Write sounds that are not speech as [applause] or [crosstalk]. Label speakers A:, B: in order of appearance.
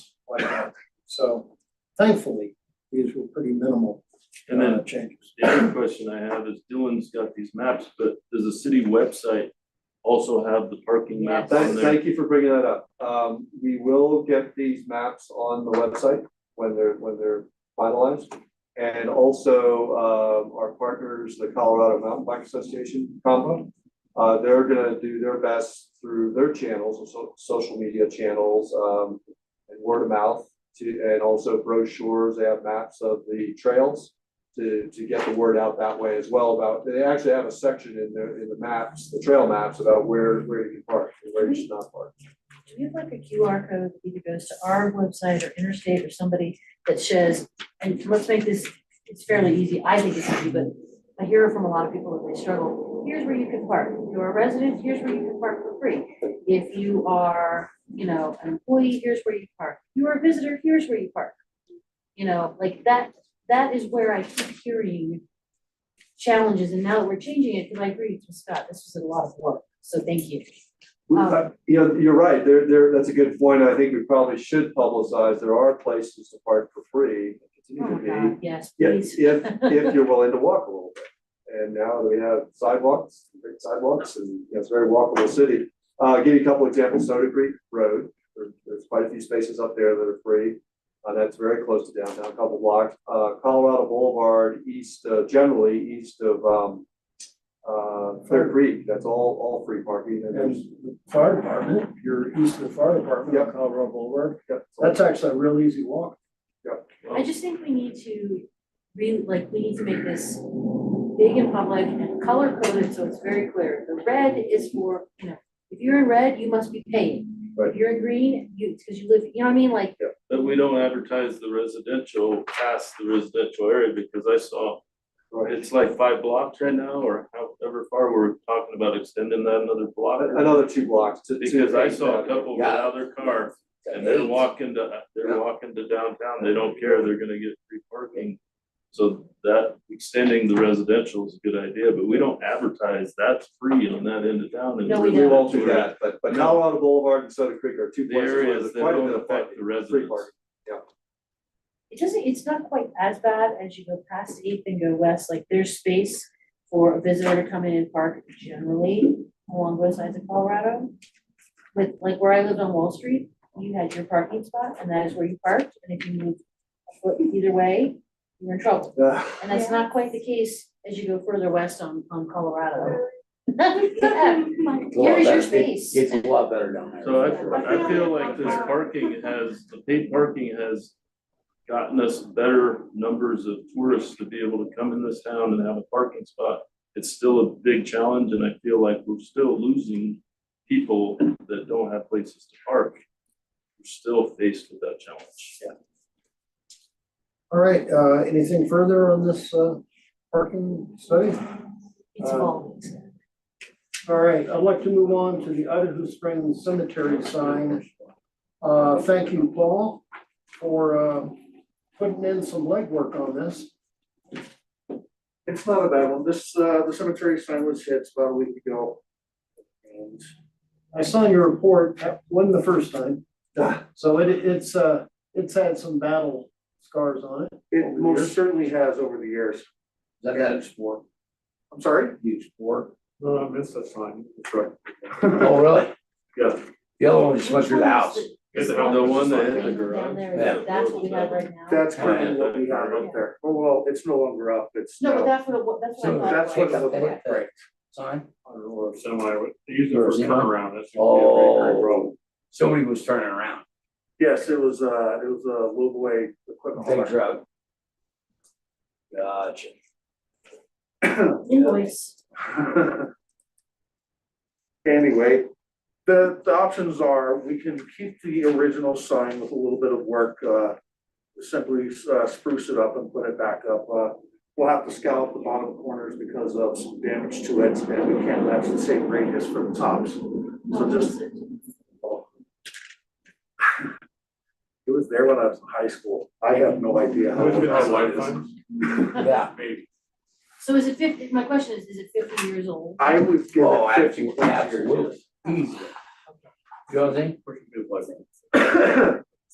A: like that. So thankfully, these were pretty minimal
B: And then
A: uh, changes.
B: the other question I have is Dylan's got these maps, but does the city website also have the parking map on
C: Thank,
B: there?
C: thank you for bringing that up. Um, we will get these maps on the website when they're, when they're finalized. And also, um, our partners, the Colorado Mountain Bike Association, combo, uh, they're gonna do their best through their channels, and so, social media channels, um, and word of mouth to, and also brochures, they have maps of the trails to, to get the word out that way as well about, they actually have a section in the, in the maps, the trail maps about where, where you can park and where you should not park.
D: Do we have like a QR code that either goes to our website or Interstate or somebody that shows, and let's make this, it's fairly easy, I think it's easy, but I hear from a lot of people that they struggle, here's where you can park, if you're a resident, here's where you can park for free. If you are, you know, an employee, here's where you park, you are a visitor, here's where you park. You know, like that, that is where I keep hearing challenges, and now that we're changing it, because I agree with Scott, this was a lot of work, so thank you. Oh.
C: Yeah, uh, you're right, there, there, that's a good point, I think we probably should publicize, there are places to park for free,
D: Oh
C: continue
D: my
C: to be.
D: God, yes,
C: If,
D: please.
C: if, if you're willing to walk a little bit, and now that we have sidewalks, great sidewalks, and you know, it's a very walkable city. Uh, give you a couple examples, Soda Creek Road, there, there's quite a few spaces up there that are free, uh, that's very close to downtown, a couple blocks. Uh, Colorado Boulevard, east, uh, generally east of, um, uh, Clear Creek, that's all, all free parking, and
A: And
C: there's
A: the fire department, you're east of the fire department, on
C: Yep.
A: Colorado Boulevard,
C: Yep, so
A: that's actually a real easy walk.
D: I just think we need to really, like, we need to make this big and public and color coded, so it's very clear. The red is for, you know, if you're in red, you must be paid.
C: Right.
D: If you're in green, you, it's because you live, you know what I mean, like,
B: But we don't advertise the residential past the residential area because I saw
C: Right.
B: it's like five blocks right now or however far we're talking about extending that another block.
C: Another two blocks to. to
B: Because I
C: take
B: saw a
C: that.
B: couple get out of their car and they're walking to, they're walking to downtown. They don't care. They're gonna get free parking. So that extending the residential is a good idea, but we don't advertise that's free on that end of town. and
D: No, we
C: We
B: really
D: don't.
C: won't do that, but, but Colorado Boulevard and Soda Creek are two
B: The
C: places where
B: areas
C: there's
B: that
C: quite a
B: don't
C: bit of
B: affect the
C: parking,
B: residents.
C: free parking.
D: it doesn't, it's not quite as bad as you go past eighth and go west, like, there's space for a visitor to come in and park generally along both sides of Colorado. With, like, where I lived on Wall Street, you had your parking spot, and that is where you parked, and if you moved a foot either way, you're in trouble.
C: Yeah.
D: And that's not quite the case as you go further west on, on Colorado. [laughs] Yeah, Here is your space.
E: It's a lot better down there.
B: So I, I feel like this parking has, the paid parking has gotten us better numbers of tourists to be able to come in this town and have a parking spot. It's still a big challenge and I feel like we're still losing people that don't have places to park. We're still faced with that challenge.
A: All right, uh, anything further on this, uh, parking study?
D: It's
E: uh,
D: all.
A: All right, I'd like to move on to the Idaho Springs Cemetery sign. Uh, thank you, Paul, for, uh, putting in some legwork on this.
F: It's not a bad one. This, uh, the cemetery sign was hit about a week ago. And
A: I saw your report, that wasn't the first time, so it, it's, uh, it's had some battle scars on it.
F: it most certainly has over the years.
E: That, that's for,
F: I'm sorry?
E: huge for.
F: No, I missed that sign. That's right.
E: Oh, really?
B: Yeah.
E: The other one just went through the house.
B: The one that hit the
D: Down
B: garage.
D: there,
E: Yeah.
D: that's what we have right now.
F: That's currently what we have up there. Oh, well, it's no longer up. It's
D: No, but
F: now,
D: that's what, it wa- that's
E: So
D: what I thought.
F: that's
D: it
F: what it
D: was.
F: looked like, right?
E: Sign?
F: Or semi, usually
E: for
F: turnaround, that's.
E: Oh. Somebody was turning around.
F: Yes, it was, uh, it was a lowboy
A: Oh,
F: equipment.
E: Big
F: hauler.
E: truck. Gotcha.
D: Invoice.
F: [laughs] Anyway, the, the options are, we can keep the original sign with a little bit of work, uh, simply, uh, spruce it up and put it back up. Uh, we'll have to scallop the bottom corners because of some damage to it, and we can't match the same radius for the tops. So just, it was there when I was in high school. I have no idea how old that sign is.
E: Yeah.
D: [laughs] So is it fifty, my question is, is it fifty years old?
F: I would give
E: Oh,
F: it fifty.
E: absolutely, absolutely. Easy. You know what
F: [laughs]
E: I'm saying?
D: Is it-
F: I